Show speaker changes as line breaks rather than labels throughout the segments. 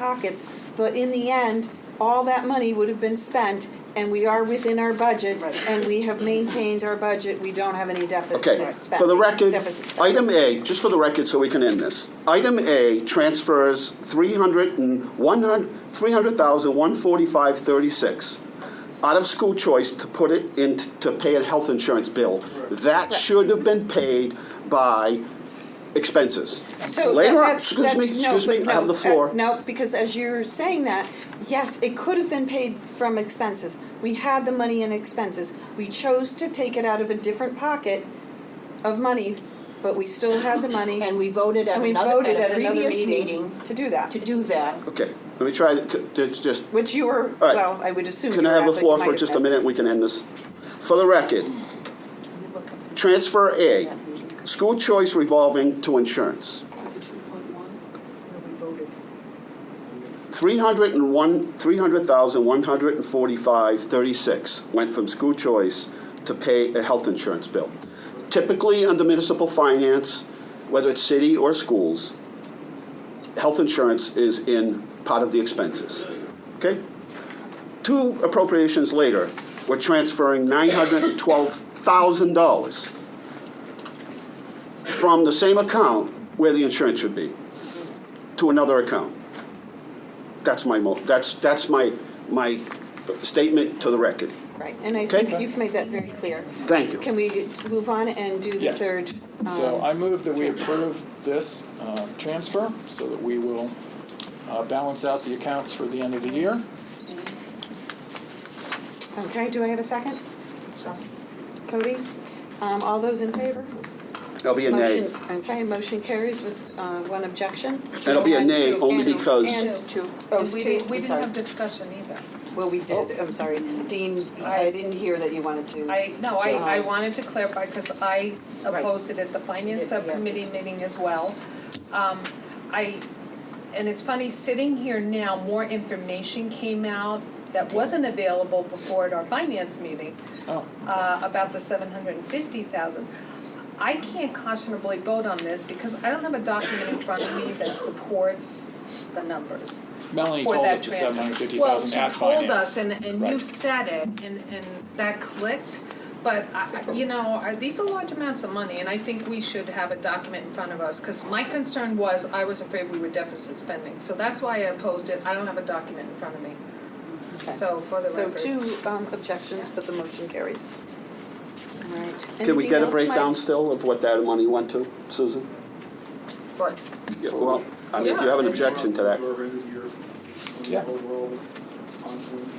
pockets, but in the end, all that money would have been spent, and we are within our budget,
Right.
and we have maintained our budget, we don't have any deficit
Okay,
spend-
for the record, uh,
deficit spend.
item A, just for the record, so we can end this. Item A transfers three hundred and one hundred, three hundred thousand, one forty-five, thirty-six out of school choice to put it in, t- to pay a health insurance bill. That should have been paid by expenses.
So that-
Later on,
that's-
excuse
that's-
me,
no,
excuse me,
but
I have
no,
the floor.
uh, No, because as you're saying that, yes, it could have been paid from expenses. We had the money in expenses. We chose to take it out of a different pocket of money, but we still had the money.
And we voted at
and we
another,
voted
at a
another
previous meeting
To do that.
to do that.
Okay, let me try, to c- it's just,
Which you were,
All right.
well, I would assume.
Can
you
I have
were
the
at, but
floor
you
for
might
just a
have missed
minute, we can end this? For the record, transfer A, school choice revolving to insurance. Three hundred and one, three hundred thousand, one hundred and forty-five, thirty-six went from school choice to pay a health insurance bill. Typically, under municipal finance, whether it's city or schools, health insurance is in part of the expenses, okay? two appropriations later, we're transferring $912,000 from the same account where the insurance should be to another account. That's my mo, that's, that's my, my statement to the record.
Right, and I
Okay.
think you've made that very clear.
Thank you.
Can we move on and do the
Yes.
third?
So
um,
I move that we approve this uh, transfer so that we will uh, balance out the accounts for the end of the year.
Okay, do I have a second? Cody? Um, All those in favor?
I'll be a nay.
Motion- Okay, motion carries with uh, one objection.
it'll be a
And
nay
two-
only
and-
because-
And two, oh,
And we
two,
didn't, we
I'm
didn't have
sorry.
discussion either.
Well, we did, I'm sorry. Dean, I didn't hear that you wanted to.
I, no, I, I
Um,
wanted to clarify, because I
Right.
opposed it at the finance
Yeah, yeah.
subcommittee meeting as well. Um, I, and it's funny, sitting here now, more information came out that wasn't available before at our finance meeting
Oh,
uh, about the seven hundred and fifty thousand. I can't conscionably vote on this, because I don't have a document in front of me that supports the numbers.
Melanie
for
told
that
us the
transfer.
seven hundred fifty thousand at
Well, she told us
finance.
and and you
Right.
said it and and that clicked, but I, I- you know, I- these are large amounts of money and I think we should have a document in front of us, cause my concern was I was afraid we were deficit spending, so that's why I opposed it, I don't have a document in front of me.
Okay.
So for the
So
record.
two um, objections, but the motion carries. All right.
Can we
Anything
get a
else, Mike?
breakdown still of what that money went to, Susan?
But
Yeah, Well, I mean, if you have an objection to that.
Yeah.
Overall, ongoing,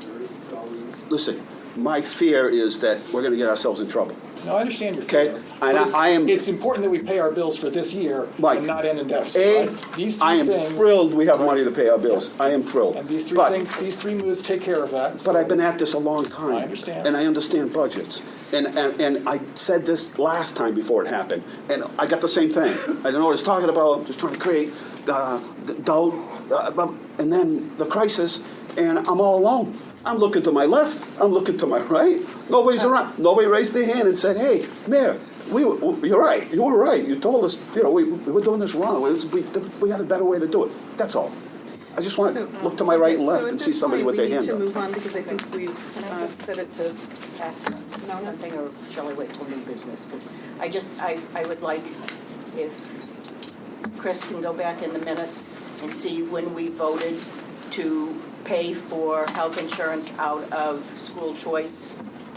there is salaries.
Listen, my fear is that we're gonna get ourselves in trouble.
No, I understand your
Okay,
fear.
and
but
I-
it's-
I am-
It's important that we pay our bills for this year
Mike,
and not end in
A,
deficit, right? These three
I am
things-
thrilled we have money to pay our bills. I am thrilled.
And these three
But-
things, these three moves take care of that.
But
so-
I've been at this a long time.
I understand.
And I understand budgets. And, and, and I said this last time before it happened, and I got the same thing. I don't know what it's talking about, just trying to create uh, d- doubt, uh, bu- and then the crisis, and I'm all alone. I'm looking to my left, I'm looking to my right, nobody's around. Nobody raised their hand and said, hey, Mayor, we, were- you're right, you were right. You told us, you know, we, we were doing this wrong. We- We, we had a better way to do it. That's all. I just want to
So,
look to my right and
okay, so
left
at
and see
this
somebody
point,
with their hand
we need
up.
to move on because I think we've uh, set it to,
ask
No, no.
something, or shall I wait till new business? 'Cause I just, I, I would like if Chris can go back in the minutes and see when we voted to pay for health insurance out of school choice,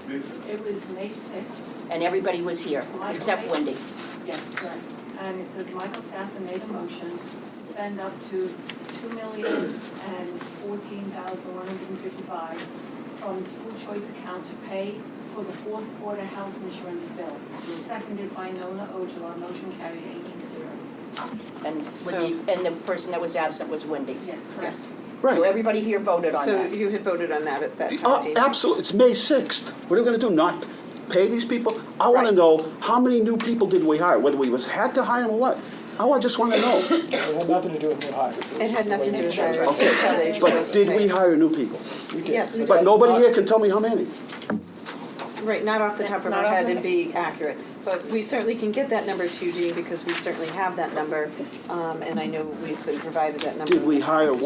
Basis.
It was May sixth,
and everybody was here, except Wendy.
yes, correct. And it says Michael Stassen made a motion to spend up to two million and fourteen thousand one hundred and fifty-five from the school choice account to pay for the fourth quarter health insurance bill. Seconded by Nona Ojala, motion carried eight to zero.
And Wendy, and the person that was absent was Wendy.
Yes, correct.
Yes. So
Right.
everybody here voted on
so
that.
you had voted on that at that time,
Oh,
Dean.
absolutely. It's May 6th. What are we going to do? Not pay these people? I want to
Right.
know how many new people did we hire, whether we was, had to hire them or what? I wa- just want to know.
It had nothing to do with new hires. was
It had
just the
nothing
way
to do
we
with
chose
that.
it.
Okay.
That's how they chose
But
to
did we
pay.
hire new people?
We did.
Yes, we
But
did.
that's
nobody
not-
here can tell me how many.
Right, not off the top of
Not
our
off
head
the-
and be accurate. But we certainly can get that number to you, Dean, because we certainly have that number. Um, and I know we've been provided that number.
Did we
in the
hire
past.